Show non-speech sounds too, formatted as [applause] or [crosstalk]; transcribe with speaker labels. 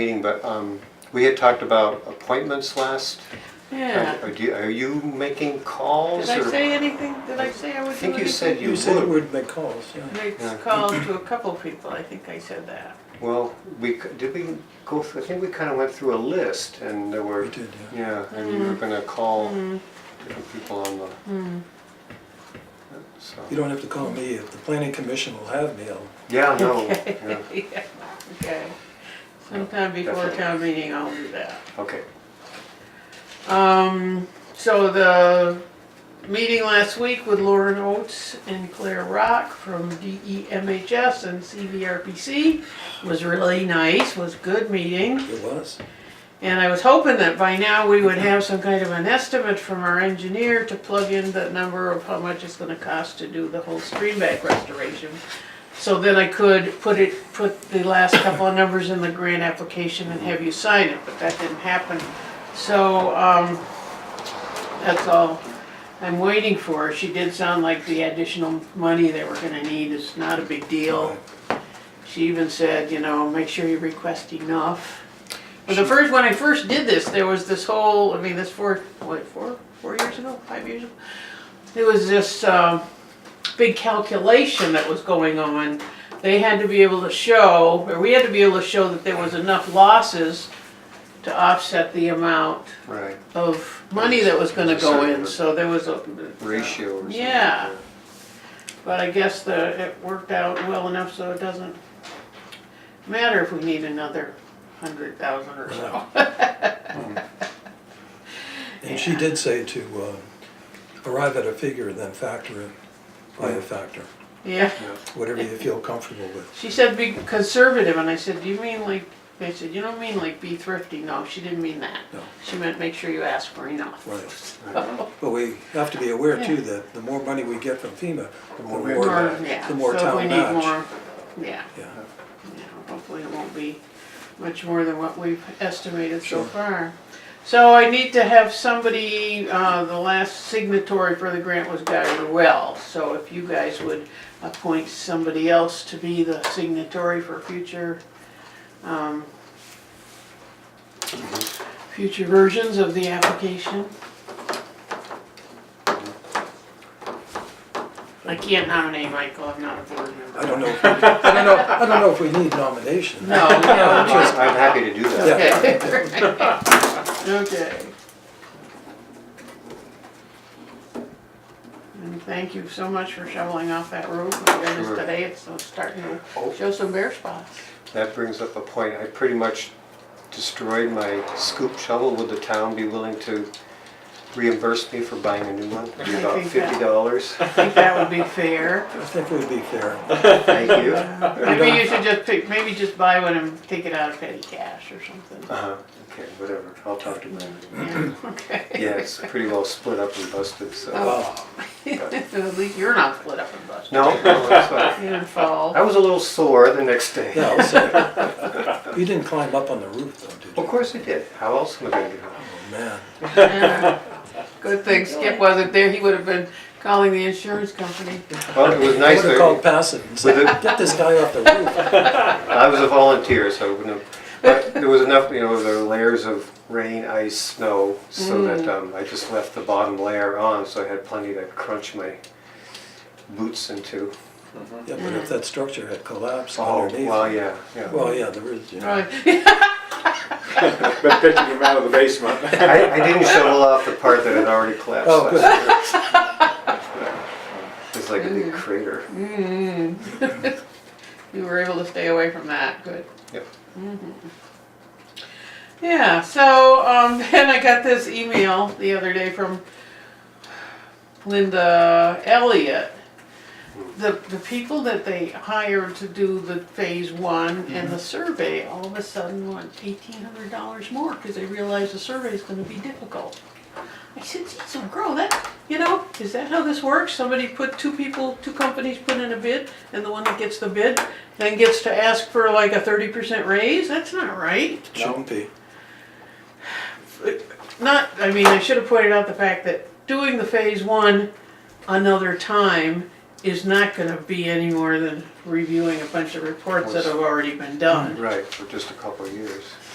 Speaker 1: meeting, but um, we had talked about appointments last.
Speaker 2: Yeah,
Speaker 1: Are do you- are you making calls?
Speaker 2: did I
Speaker 1: or-
Speaker 2: say anything, did I say I would do anything?
Speaker 1: I think you said you
Speaker 3: You said
Speaker 1: would.
Speaker 3: we'd make calls, yeah.
Speaker 2: Make
Speaker 1: Yeah.
Speaker 2: calls to a couple people, I think I said that.
Speaker 1: Well, we, c- did we go, through- I think we kind of went through a list and there were.
Speaker 3: We did, yeah.
Speaker 1: and you
Speaker 2: Mm.
Speaker 1: were gonna call different people on the. So-
Speaker 3: You don't have to call me, if the planning commission will have me, I'll,
Speaker 1: Yeah,
Speaker 2: [laughs]
Speaker 1: no, yeah,
Speaker 2: Yeah, Okay, sometime before
Speaker 1: definitely.
Speaker 2: town meeting, I'll do that.
Speaker 1: okay.
Speaker 2: Um, so the meeting last week with Lauren Oates and Claire Rock from E DEMHS and CVRPC was really nice, was good meeting.
Speaker 3: it was.
Speaker 2: And I was hoping that by now we would have some kind of an estimate from our engineer to plug in the number of how much it's gonna cost to do the whole stream bank restoration. So then I could put it, put the last couple of numbers in the grant application and have you sign it, but that didn't happen. So, um, that's all I'm waiting for. She did sound like the additional money that we're gonna need is not a big deal. She even said, you know, make sure you request enough. But the first, when I first did this, there was this whole, I mean, this four, what, four, four years ago, five years ago? There was this, um, big calculation that was going on. They had to be able to show, or we had to be able to show that there was enough losses to offset the amount
Speaker 1: Right,
Speaker 2: of money that was gonna go in, so there was a.
Speaker 1: ratio or something.
Speaker 2: Yeah. But I guess the, it worked out well enough so it doesn't matter if we need another hundred thousand or so.
Speaker 3: And she did say to uh, arrive at a figure and then factor it by a factor,
Speaker 2: [laughs] Yeah,
Speaker 3: whatever you feel comfortable with.
Speaker 2: she said be conservative, and I said, do you mean like, they said, you don't mean like be thrifty, no, she didn't mean that.
Speaker 3: No.
Speaker 2: She meant make sure you ask for enough.
Speaker 3: Right.
Speaker 2: [laughs]
Speaker 1: Right.
Speaker 3: But we have to be aware too that the more money we get from FEMA, the more,
Speaker 1: more
Speaker 3: the
Speaker 1: we-
Speaker 2: Or,
Speaker 3: more,
Speaker 2: yeah,
Speaker 3: the more
Speaker 2: so if we
Speaker 3: town
Speaker 2: need
Speaker 3: match.
Speaker 2: more, yeah,
Speaker 3: Yeah,
Speaker 2: yeah, hopefully it won't be much more than what we've estimated so far. So I need to have somebody, uh, the last signatory for the grant was Guy Ruel, so if you guys would appoint somebody else to be the signatory for future, um, future versions of the application. I can't nominate Michael, I'm not a board member.
Speaker 3: I don't know, if we- I don't know, I don't know if we need nomination.
Speaker 2: No, no, just
Speaker 1: I'm happy to do that.
Speaker 2: Okay. Okay. And thank you so much for shoveling off that road. We did this
Speaker 1: Sure. Oh.
Speaker 2: today, it's uh, starting to show some bare spots.
Speaker 1: That brings up a point. I pretty much destroyed my scoop shovel. Would the town be willing to reimburse me for buying a new one? It'd be
Speaker 2: I
Speaker 1: about
Speaker 2: think that-
Speaker 1: fifty dollars.
Speaker 2: I think that would be fair.
Speaker 3: I think it would
Speaker 1: [laughs]
Speaker 3: be fair.
Speaker 1: Thank
Speaker 2: [laughs]
Speaker 1: you.
Speaker 2: Maybe you should just pick, maybe just buy one and take it out of petty cash or
Speaker 1: [clears throat]
Speaker 2: something.
Speaker 1: Uh-huh, okay, whatever. I'll talk to them.
Speaker 2: Yeah, Okay.
Speaker 1: Yeah, it's pretty well split up and busted, so.
Speaker 2: Oh.
Speaker 3: Wow.
Speaker 2: [laughs] At least you're not split up and busted.
Speaker 1: No, no, it's fine.
Speaker 2: You didn't fall.
Speaker 1: I was a little sore the next day.
Speaker 3: Yeah, I'll say. You didn't climb up on the roof though, did you?
Speaker 1: Of course I did. How else am I gonna get home?
Speaker 3: Oh, man.
Speaker 2: Yeah. Good thing Skip wasn't there, he would have been calling the insurance company.
Speaker 1: Well, it was nice
Speaker 3: I would have
Speaker 1: that,
Speaker 3: called passive and
Speaker 1: With
Speaker 3: said, get this guy off the roof.
Speaker 1: I was a volunteer, so I wouldn't have, but there was enough, you know, there were layers of rain, ice, snow, so that, um, I just left the bottom layer on, so I had plenty to crunch my boots into.
Speaker 3: Yeah, but if that structure had collapsed
Speaker 1: Oh,
Speaker 3: underneath.
Speaker 1: well, yeah, yeah.
Speaker 3: Well, yeah, there is, you know.
Speaker 2: Right. [laughs]
Speaker 4: Been picking him out of the basement.
Speaker 1: I, I didn't shovel off the part that had already collapsed.
Speaker 3: Oh, good.
Speaker 1: last year. It's like a big crater.
Speaker 2: You were able to stay away from that, good.
Speaker 1: Yep.
Speaker 2: Yeah, so um, [laughs] then I got this email the other day from Linda Elliott. The, the people that they hired to do the phase one and the survey all of a sudden want $1,800 more because they realized the survey is going to be difficult. I said, geez, so girl, that, you know, is that how this works? Somebody put, two people, two companies put in a bid, and the one that gets the bid then gets to ask for like a thirty percent raise? That's not right.
Speaker 3: Shouldn't be.
Speaker 2: Not, I mean, I should have pointed out the fact that doing the phase one another time is not gonna be any more than reviewing a bunch of reports that have already been done.
Speaker 1: Right, for just a couple of years.